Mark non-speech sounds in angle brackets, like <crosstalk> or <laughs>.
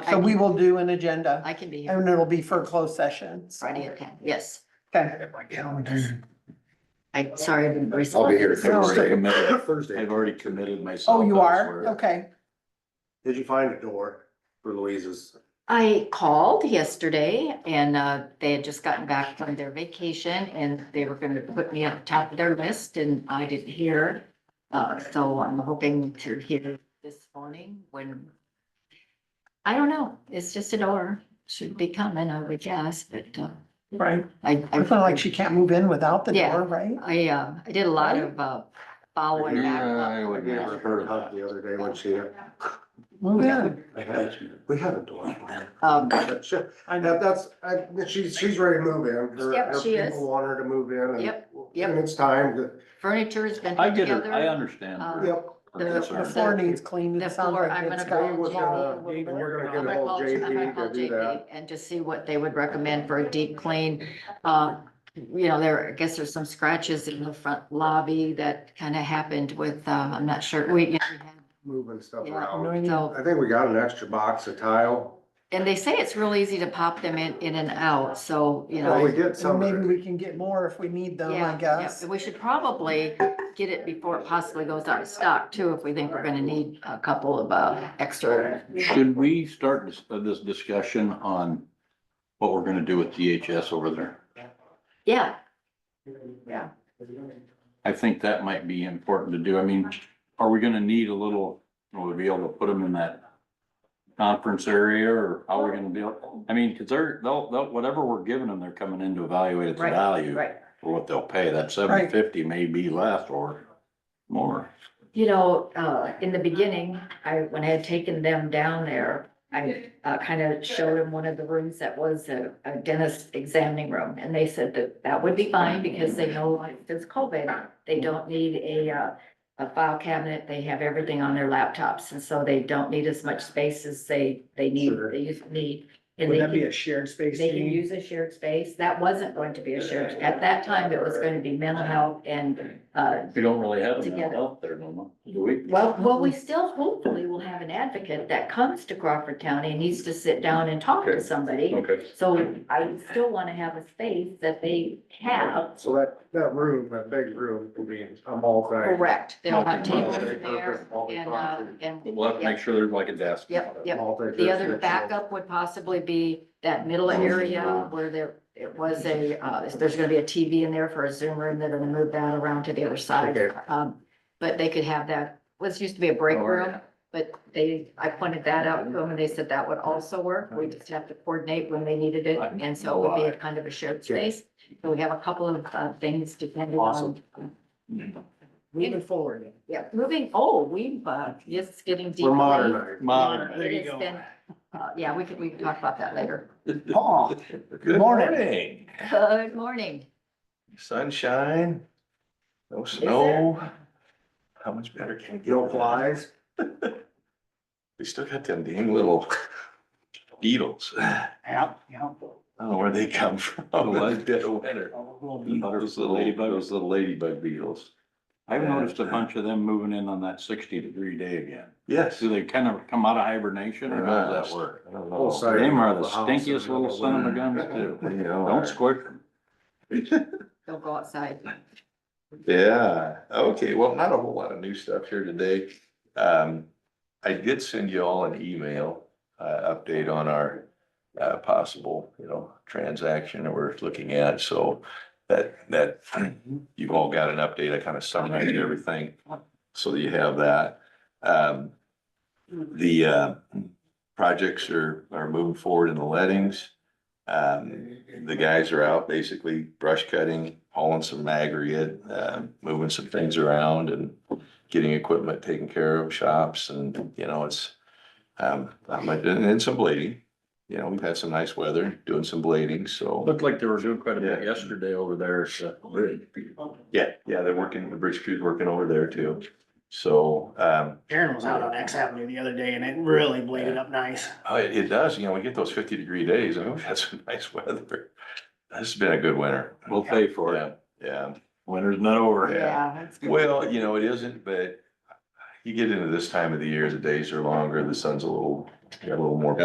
I- I So we can- will do an agenda I can be here and it'll be for closed session. so- Friday at ten, yes. Okay. I, sorry, I didn't I'll be respond. here I've already Thursday. committed- <laughs> Thursday. I've already committed myself. Oh, you are? elsewhere. Okay. Did you find a door for Louise's? I called yesterday and uh, they had just gotten back from their vacation and they were gonna put me at the top of their list and I didn't hear. Uh, so I'm hoping to hear this morning when. I don't know, it's just a door, should be coming, I would guess, but uh, Right. I. I- It's not like she can't move in without the Yeah. door, right? I, uh, I did a lot of uh, following back. Yeah, up. I I would uh, gave her never her heard hug of the other day when she, Move in. I had- we had a door. Um, Shit. I That, know. that's, I, she's, she's ready to move in. Her- Yep, her she is. People want her to move in and. Yep, yep. And it's time to, Furniture's been I put get it, together. I understand. Uh, her- yep. her the- The concern. the- floor needs cleaned. the It sounds floor, like I'm it's gonna got- Dave was gonna, we're I'm gonna get gonna call- ahold of I'm gonna JP call to do JP that. and just see what they would recommend for a deep clean. Uh, you know, there, I guess there's some scratches in the front lobby that kind of happened with, um, I'm not sure, we, you know, Moving stuff Yeah. around. we had- so, I think we got an extra box of tile. and they say it's real easy to pop them in, in and out, so, you know. Well, we did So some maybe of it. we can get more if we need them, Yeah, I yeah, guess. but We should probably get it before it possibly goes out of stock too, if we think we're gonna need a couple of, uh, extra. Should we start this, uh, this discussion on what we're gonna do with DHS over there? Yeah, I think that might be important to do. I mean, are we gonna need a little, will we be able to put them in that conference area or how are we gonna deal? I mean, cause they're, they'll, they'll, whatever we're giving them, they're coming in to evaluate its Right, value right. for what they'll pay. That seven Right. fifty may be less or more. You know, uh, in the beginning, I, when I had taken them down there, I, uh, kind of showed them one of the rooms that was a, a dentist examining room. And they said that that would be fine because they know like, there's COVID. They don't need a, uh, a file cabinet. They have everything on their laptops. And so they don't need as much space as they, they need, Sure. they used to need. And Would they that be can- a shared space? they can meeting? use a shared space. That wasn't going to be a shared, at that time, it was going to be mental health and, uh, We don't really have them Together. out there, no, do we? well, well, we still hopefully will have an advocate that comes to Crawford County and needs to sit down and talk to Okay. somebody. Okay. So I still want to have a space that they have. So that, that room, that big room will be a multi. Correct. They'll have tables there Multi-purpose, and, uh, and, We'll have to make sure there's like a desk. yep, yep. The other multi-jurisdictional. backup would possibly be that middle Oh. area where there, it was a, uh, there's gonna be a TV in there for a Zoom room. They're gonna move that around to the other side. Okay. Um, but they could have that, was used to be a break Oh, room. yeah. But they, I pointed that out to them and they said that would also work. We just have to coordinate when they needed it. And so it would be a kind of a shared space. So we have a couple of uh, things depending on. Mm. Moving forward. Yeah, moving, oh, we've, uh, just getting deep. We're modernized. Modern. It has been- uh, Yeah, we could, we can talk about that later. Paul, Good morning. morning. Good morning. Sunshine, no there? snow. How much better can it get? No flies. We still got them dang little <laughs> beetles. I yeah, yeah. don't know where they come from. Oh, in the Dead of winter. Those little, Ladybug. those little ladybug beetles. I've Yeah. noticed a bunch of them moving in on that sixty degree day again. Yes. Do they kind of come out of hibernation or how does that work? I don't Whole know. side Them are of the house stinkiest and little all son of a that. guns too. They <laughs> are. Don't squirt them. Don't go outside. Yeah, okay, well, not a whole lot of new stuff here today. Um, I did send you all an email, uh, update on our. Uh, possible, you know, transaction that we're looking at, so that, that, <clears throat> you've all got an update, I kind of summarized everything. So that you have that, um. The, uh, projects are, are moving forward in the lettings. Um, the guys are out basically brush cutting, hauling some aggregate, uh, moving some things around and getting equipment taken care of, shops and, you know, it's, um, not much- and and some blading. You know, we've had some nice weather, doing some blading, so. Looked like they were doing quite a bit Yeah. yesterday over there, so. Yeah, yeah, they're working, the bridge crew's working over there too. So, um, Aaron was out on X Avenue the other day and it really bladed up nice. oh, it, it does, you know, we get those fifty degree days. I mean, we've had some <laughs> nice weather. This has been a good winter. We'll pay for it. Yeah, yeah. Winter's not over. Yeah. that's good. Well, you know, it isn't, but you get into this time of the year, the days are longer, the sun's a little, a little more